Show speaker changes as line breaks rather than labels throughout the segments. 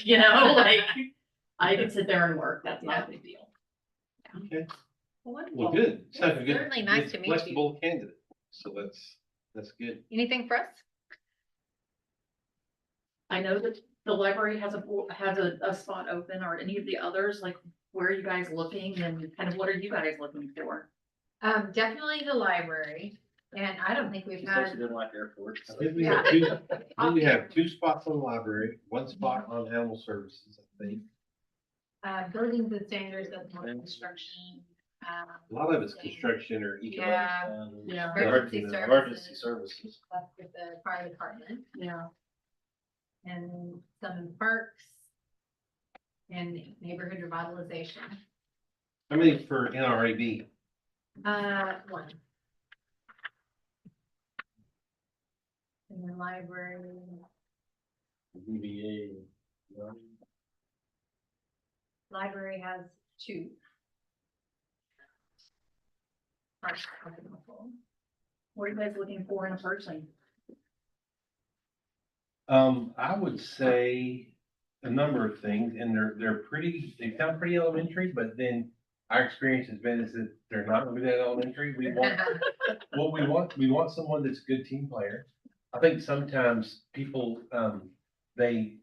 you know, like, I can sit there and work, that's not a big deal.
Well, good. It's like a good-
Certainly nice
good
to meet you.
Flexible candidate, so that's, that's good.
Anything for us?
I know that the library has a, bo- has a, a spot open, or any of the others, like, where are you guys looking, and kind of what are you guys looking for?
Um, definitely the library, and I don't think we've
She's such a
had,
good one at airport.
I think we have two, I think we have two spots on the library,
Mm-hmm.
one spot on animal services, I think.
uh, buildings and standards of construction. um,
A lot of it's construction or economic.
Yeah,
um,
Yeah.
emergency
Emergency emergency
services,
services.
that's with the fire department,
Yeah.
and some in parks. And neighborhood revitalization,
How many for NRAB?
uh, one. And the library,
VBA.
library has two. Parks, I don't know.
What are you guys looking for in a person?
Um, I would say a number of things, and they're, they're pretty, they sound pretty elementary, but then our experience has been is that they're not really that elementary. We want Well, we want, we want someone that's a good team player. I think sometimes people, um, they.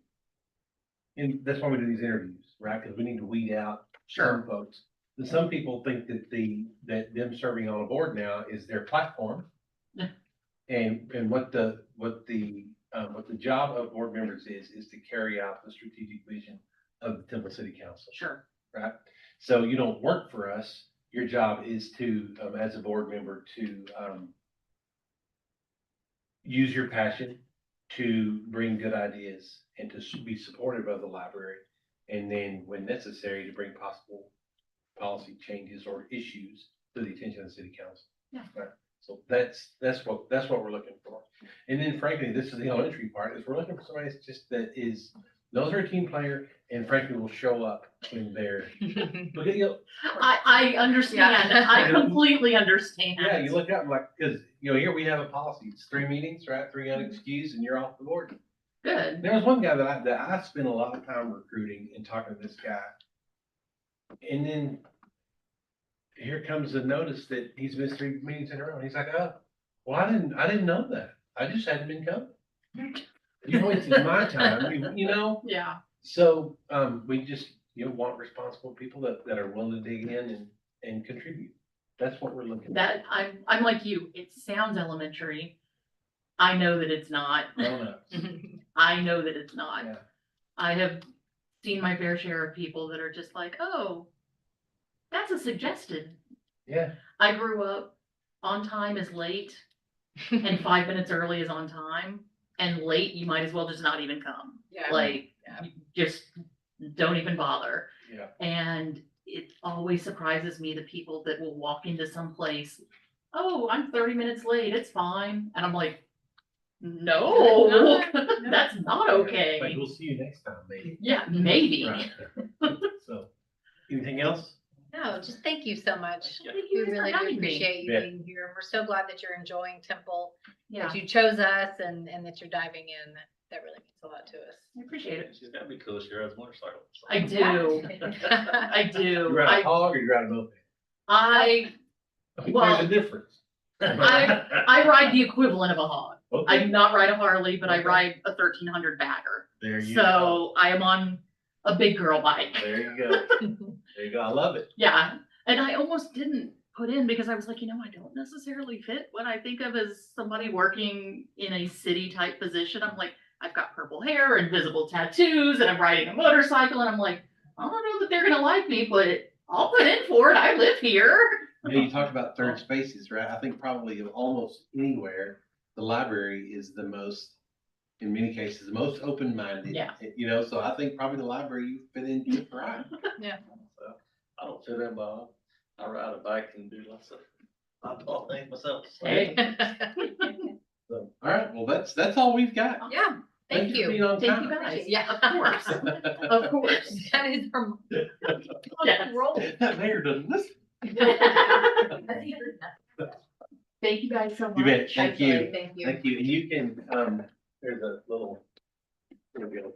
And that's why we do these interviews, right? Cause we need to weed out some folks. And some people think that the, that them serving on a board now is their platform.
Yeah.
And, and what the, what the, um, what the job of board members is, is to carry out the strategic vision of the Temple City Council
Sure.
right? So you don't work for us. Your job is to, um, as a board member, to, um, use your passion to bring good ideas and to s- be supportive of the library. And then when necessary, to bring possible policy changes or issues to the attention of the city council.
Yeah.
Right? So that's, that's what, that's what we're looking for. And then frankly, this is the elementary part, is we're looking for somebody that's just, that is, knows their team player and frankly will show up when they're, look at you,
I, I understand,
Yeah.
I completely understand.
yeah, you look up and like, cause, you know, here we have a policy, it's three meetings, right, three unexcused and you're off the board.
Good,
There was one guy that I, that I spent a lot of time recruiting and talking to this guy. And then here comes the notice that he's missed three meetings in a row. And he's like, oh, well, I didn't, I didn't know that. I just hadn't been coming. You wasted my time, you- you know?
yeah,
So, um, we just, you know, want responsible people that, that are willing to dig in and, and contribute. That's what we're looking for.
that, I'm, I'm like you, it sounds elementary. I know that it's not,
Grown-ups.
I know that it's not.
Yeah.
I have seen my fair share of people that are just like, oh, that's a suggested.
Yeah,
I grew up on time is late and five minutes early is on time. And late, you might as well just not even come.
Yeah.
Like,
Yeah.
you just don't even bother.
yeah.
And it always surprises me the people that will walk into some place, oh, I'm thirty minutes late, it's fine. And I'm like, no, that's not
Like,
okay.
we'll see you next time, maybe.
Yeah, maybe.
Right. So, anything else?
No, just thank you so much.
Yeah.
Thank
We
you guys for
really do
having me.
appreciate you
Yeah.
being here. and We're so glad that you're enjoying Temple,
Yeah,
that you chose us and, and that you're diving in. That- That really means a lot to us.
I appreciate it.
She's gotta be cool, she rides motorcycles.
I do, I
You
do.
ride a
I,
hog or you ride a moped?
I,
There's a difference.
I ride the equivalent of a hog. I do
Okay,
not ride a Harley, but I
Okay.
ride a thirteen hundred bagger.
There you go.
So I am on a big girl bike.
There you go. There you go. I love it.
Yeah, and I almost didn't put in because I was like, you know, I don't necessarily fit what I think of as somebody working in a city type position. I'm like, I've got purple hair and visible tattoos and I'm riding a motorcycle and I'm like, I don't know that they're gonna like me, but I'll put in for it. I live here.
You know, you talked about third spaces, right? I think probably of almost anywhere, the library is the most, in many cases, the most open-minded.
Yeah.
You know, so I think probably the library you've been in, just right?
So, I don't fit in, Bob. I ride a bike and do lots of, I don't think myself. so.
Hey.
So, all right, well, that's, that's all we've got.
Yeah, thank
for
you.
being on
Thank you
time.
guys.
Yeah.
Of course, of course.
That is from.
Yes.
That mayor doesn't listen.
Thank you guys so much.
You bet. Thank you.
Thank you.
Thank you. And you can, um, there's a little, there we go.